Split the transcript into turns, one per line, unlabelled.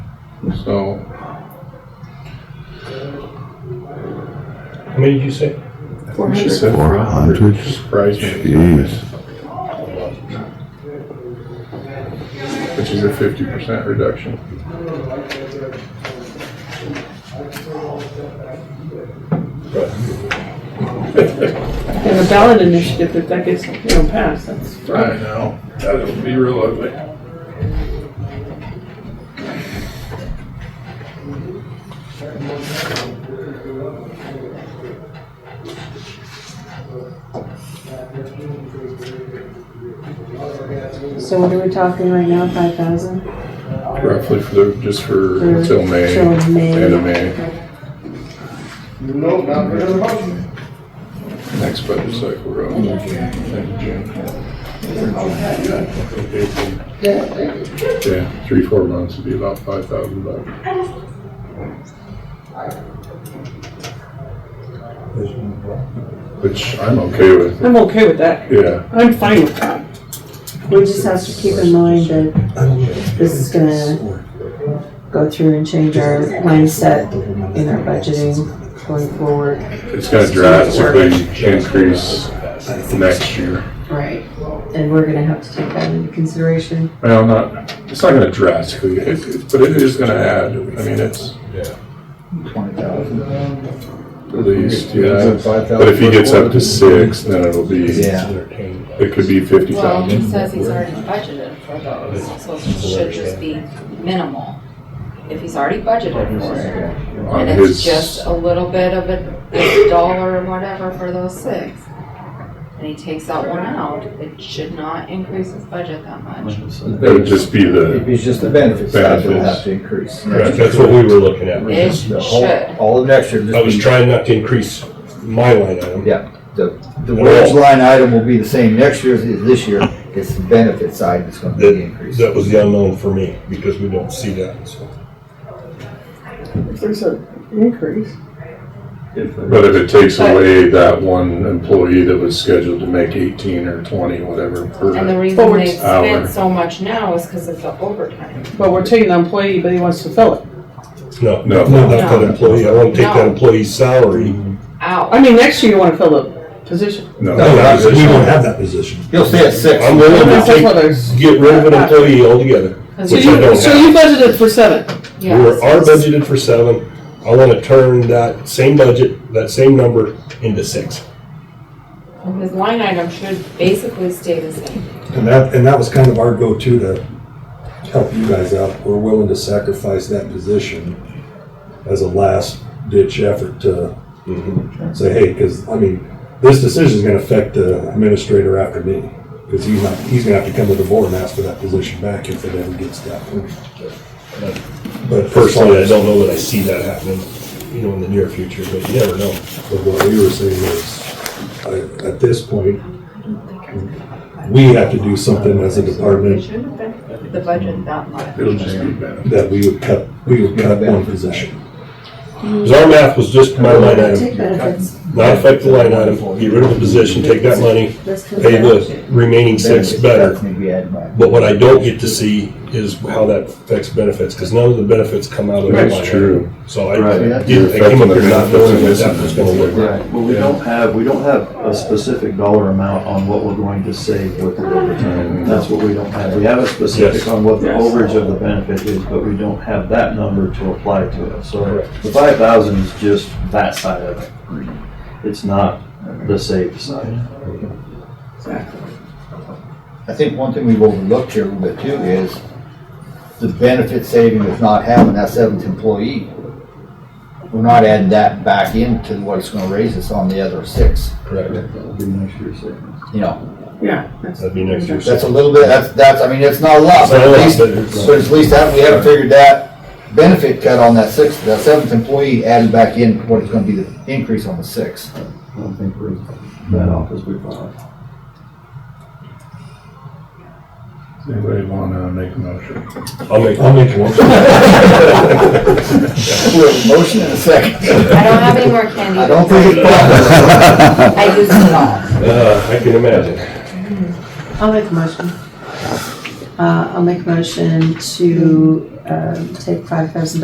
So,
How many did you say?
I think she said
Four hundred?
Surprised me.
Jeez.
Which is a fifty percent reduction.
And a ballot initiative, if that gets, you know, passed, that's.
I know, that would be real ugly.
So what are we talking right now, five thousand?
Roughly for the, just for until May.
Till May.
End of May, next budget cycle, we're on. End of June. April. Yeah, three, four months would be about five thousand bucks. Which I'm okay with,
I'm okay with that.
yeah.
I'm fine with that.
We just have to keep in mind that this is gonna go through and change our mindset in our budgeting going forward.
It's gonna drastically increase next year.
Right. And we're gonna have to take that into consideration.
Well, not, it's not gonna drastically, it- it- but it is gonna add, I mean, it's
Twenty thousand.
at least, yeah. But
But
if he gets up to six, then it'll be, it could be fifty
Well, he
thousand.
says he's already budgeted for those, so it should just be minimal. If he's already budgeted for it,
On
and it's
his,
just a little bit of a, a dollar or whatever for those six, and he takes that one out, it should not increase his budget that much.
it would just be
If
the,
it's just the benefits, that will
Benefits.
have to increase.
Right, That's what we were looking at.
It
The whole-
should.
All of next year. just
I was
be-
trying not to increase my line item.
Yeah, the, the wage line item will be the same next year as it is this year. It's the benefit side that's gonna be the
That,
increase.
that was the unknown for me, because we don't see that, so.
If there's an increase.
but if it takes away that one employee that was scheduled to make eighteen or twenty, whatever. per-
And the reason they
Hour.
spent so much now is because of the overtime.
But we're taking the employee, but he wants to fill it.
No,
No.
no, not that employee. I want to take that
No.
employee's salary.
I
Out.
mean, next year you wanna fill the position.
No,
No,
that was-
we don't have that position.
You'll stay at six.
I'm willing
That's
to
what
take,
there's-
get rid of an employee altogether.
So
Which I
you,
don't
so
have.
you budgeted for seven.
Yeah,
We're, our
so it's-
budgeted for seven. I want to turn that same budget, that same number into six.
His line item should basically stay the same.
And that, and that was kind of our go-to to help you guys out. We're willing to sacrifice that position as a last ditch effort to
Mm-hmm.
say, hey, because, I mean, this decision's gonna affect the administrator after me. Because he's not, he's gonna have to come to the board and ask for that position back if it ever gets that. But
Personally, I don't know that I see that happening, you know, in the near future, but you never know.
But what we were saying is, I- at this point, we have to do something as a
It
department
shouldn't affect the budget that much.
It'll just be better.
that we would cut, we would cut one position.
'Cause our math was just my line
Take
item,
benefits,
not affect the line item, get rid of the position, take that money,
let's come
pay
back
the remaining six better.
That's maybe add my.
But what I don't get to see is how that affects benefits, because none of the benefits come out of that
That's
line
true.
item. So I,
Right.
I didn't- I came up here not knowing what that was gonna look like.
Well, we don't have, we don't have a specific dollar amount on what we're going to save with the overtime. That's what we don't have. We have a
Mm-hmm. Yes.
specific on what the
Yes.
overage of the benefit is, but we don't have that number to apply to it. So
Correct.
the five thousand is just that side of it. It's not the saved side.
I think one thing we've overlooked here a little bit too is the benefit saving of not having that seventh employee. We're not adding that back into what it's gonna raise us on the other six,
Correct.
That'll be next year's savings.
you know.
Yeah.
That'd be next year's.
That's a little bit, that's, that's, I mean, it's not a lot,
It's not
but
a lot,
at least,
but it's-
but at least that, we haven't figured that benefit cut on that sixth, that seventh employee added back in what is gonna be the increase on the sixth.
I don't think we're that off as we thought.
Anybody wanna make a motion?
I'll make,
I'll make one.
We have a motion and a second.
I don't have any more candy.
I don't think it's possible.
I used it all.
uh, I can imagine.
I'll make a motion. Uh, I'll make a motion to um, take five thousand